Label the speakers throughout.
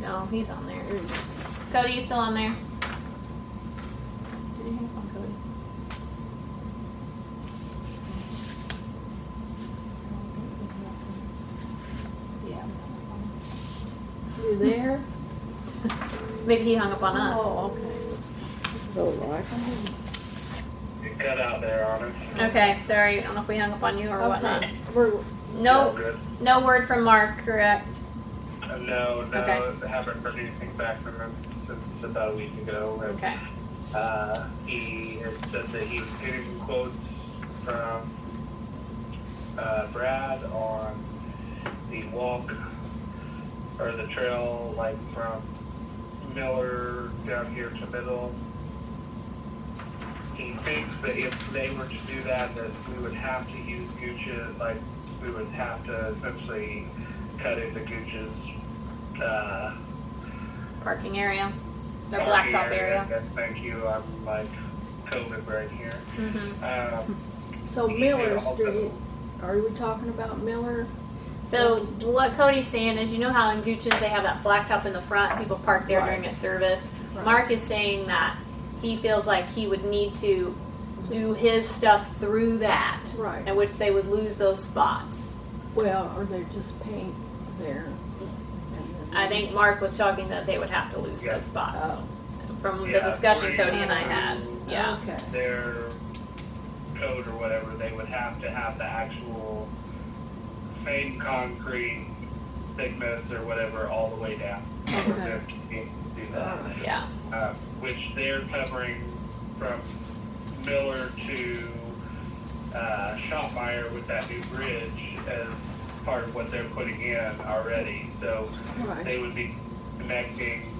Speaker 1: No, he's on there. Cody, you still on there? Did you hang up on Cody? Yeah.
Speaker 2: You there?
Speaker 1: Maybe he hung up on us.
Speaker 2: Oh, okay. Go right.
Speaker 3: It cut out there on us.
Speaker 1: Okay, sorry. I don't know if we hung up on you or whatnot.
Speaker 2: Okay. We're,
Speaker 3: All
Speaker 1: No,
Speaker 3: good.
Speaker 1: no word from Mark, correct?
Speaker 3: Uh, No, no,
Speaker 1: Okay.
Speaker 3: haven't heard anything back from him since about a week ago. and,
Speaker 1: Okay.
Speaker 3: Uh, he had said that he was getting quotes from, uh, Brad on the walk or the trail, like from Miller down here to Middle. He thinks that if they were to do that, that we would have to use Gucci, like, we would have to essentially cut into Gucci's, uh,
Speaker 1: Parking area, the
Speaker 3: our
Speaker 1: blacktop
Speaker 3: ear,
Speaker 1: area.
Speaker 3: that- Thank you, I'm like COVID right here.
Speaker 1: Mm-hmm.
Speaker 3: Um,
Speaker 2: so
Speaker 3: he
Speaker 2: Miller's,
Speaker 3: also-
Speaker 2: do you, are we talking about Miller?
Speaker 1: So what Cody's saying is, you know how in Gucci's they have that blacktop in the front, people park there during a service.
Speaker 2: Right.
Speaker 1: Mark is saying that he feels like he would need to do his stuff through that,
Speaker 2: Right.
Speaker 1: in which they would lose those spots.
Speaker 2: Well, or they just paint there?
Speaker 1: I think Mark was talking that they would have to lose
Speaker 3: Yeah.
Speaker 1: those spots
Speaker 2: Oh.
Speaker 1: from the
Speaker 3: Yeah,
Speaker 1: discussion
Speaker 3: we-
Speaker 1: Cody and I had. Yeah.
Speaker 2: Okay.
Speaker 3: Their code or whatever, they would have to have the actual same concrete thickness or whatever all the way down. for
Speaker 2: Okay.
Speaker 3: them to be- do that.
Speaker 1: Yeah.
Speaker 3: Uh, which they're covering from Miller to uh, Shopmire with that new bridge as part of what they're putting in already. So
Speaker 2: Right.
Speaker 3: they would be connecting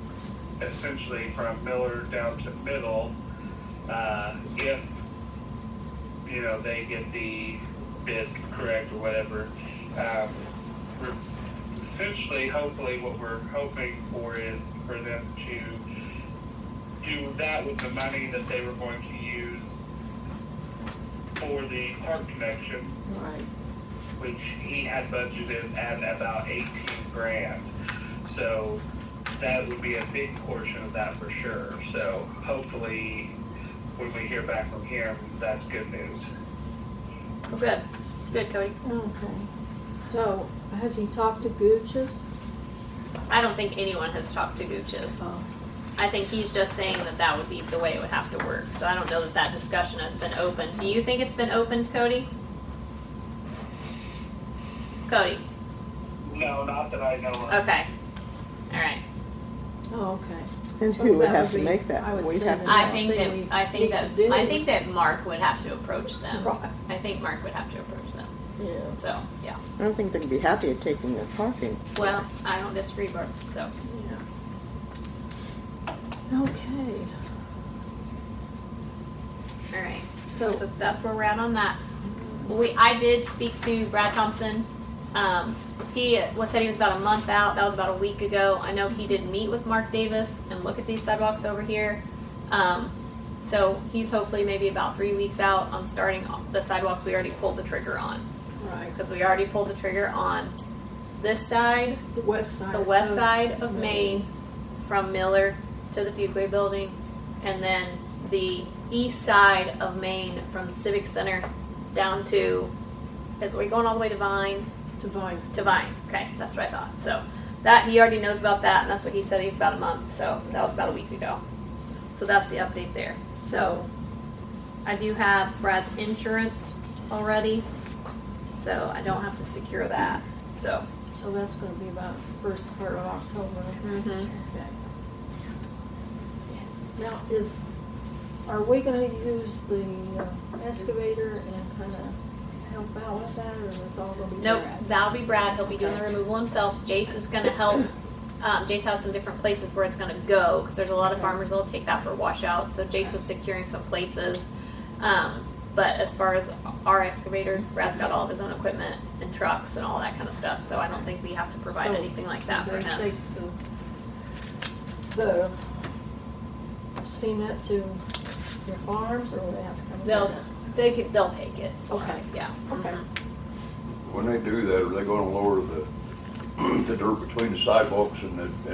Speaker 3: essentially from Miller down to Middle, uh, if, you know, they get the bid correct or whatever. Um, we're essentially, hopefully, what we're hoping for is for them to do that with the money that they were going to use for the park connection,
Speaker 2: Right.
Speaker 3: which he had budgeted at about 18 grand. So that would be a big portion of that for sure. So hopefully, when we hear back from him, that's good news.
Speaker 1: Well, good. Good, Cody.
Speaker 2: Okay. So has he talked to Gooch's?
Speaker 1: I don't think anyone has talked to Gucci's.
Speaker 2: Oh,
Speaker 1: I think he's just saying that that would be the way it would have to work. So I don't know that that discussion has been opened. Do you think it's been opened, Cody? Cody.
Speaker 3: No, not that I know of.
Speaker 1: Okay. All right.
Speaker 2: oh, okay.
Speaker 4: And
Speaker 2: So
Speaker 4: who would
Speaker 2: that would
Speaker 4: have to
Speaker 2: be-
Speaker 4: make that?
Speaker 2: I would
Speaker 4: We'd
Speaker 2: say
Speaker 4: have to.
Speaker 1: I
Speaker 2: Yeah.
Speaker 1: think
Speaker 2: See,
Speaker 1: that
Speaker 2: we-
Speaker 1: I think
Speaker 2: we
Speaker 1: that
Speaker 2: did.
Speaker 1: I think that Mark would have to approach them.
Speaker 2: Right.
Speaker 1: I think Mark would have to approach them.
Speaker 2: Yeah.
Speaker 1: So yeah.
Speaker 4: I don't think they'd be happy at taking the parking.
Speaker 1: Well, I don't disagree, Barb. So
Speaker 2: Yeah. Okay.
Speaker 1: all right.
Speaker 2: So
Speaker 1: So that's where we're at on that. We, I did speak to Brad Thompson. Um, he was said he was about a month out. That was about a week ago. I know he did meet with Mark Davis and look at these sidewalks over here. Um, so he's hopefully maybe about three weeks out on starting off the sidewalks we already pulled the trigger on
Speaker 2: right,
Speaker 1: because we already pulled the trigger on this side,
Speaker 2: the west side.
Speaker 1: the west
Speaker 2: of-
Speaker 1: side of Maine, from Miller to the Fuquay Building, and then the east side of Maine from Civic Center down to. We're going all the way to Vine
Speaker 2: To Vines.
Speaker 1: to Vine. Okay, that's what I thought. So that he already knows about that, and that's what he said. He's about a month, so that was about a week ago. So that's the update there. So I do have Brad's insurance already, so I don't have to secure that. So
Speaker 2: So that's gonna be about first part of October.
Speaker 1: Mhm.
Speaker 2: Okay. Now, is, are we gonna use the uh, excavator and kinda help out with that, or is this all gonna be?
Speaker 1: nope,
Speaker 2: Brad?
Speaker 1: that'll be Brad. He'll be doing the removal himself. Jace is going to help. Um, Jace has some different places where it's going to go because there's a lot of farmers that'll take that for washouts. So Jace was securing some places. Um, but as far as our excavator, Brad's got all of his own equipment and trucks and all that kind of stuff. So I don't think we have to provide
Speaker 2: So,
Speaker 1: anything like that for
Speaker 2: They
Speaker 1: him.
Speaker 2: take The the cement to your farms, or they have to come?
Speaker 1: They'll Mm-hmm.
Speaker 2: get it?
Speaker 1: they could, they'll take it.
Speaker 2: Okay,
Speaker 1: Yeah.
Speaker 2: okay.
Speaker 5: When they do that, are they gonna lower the, the dirt between the sidewalks and the,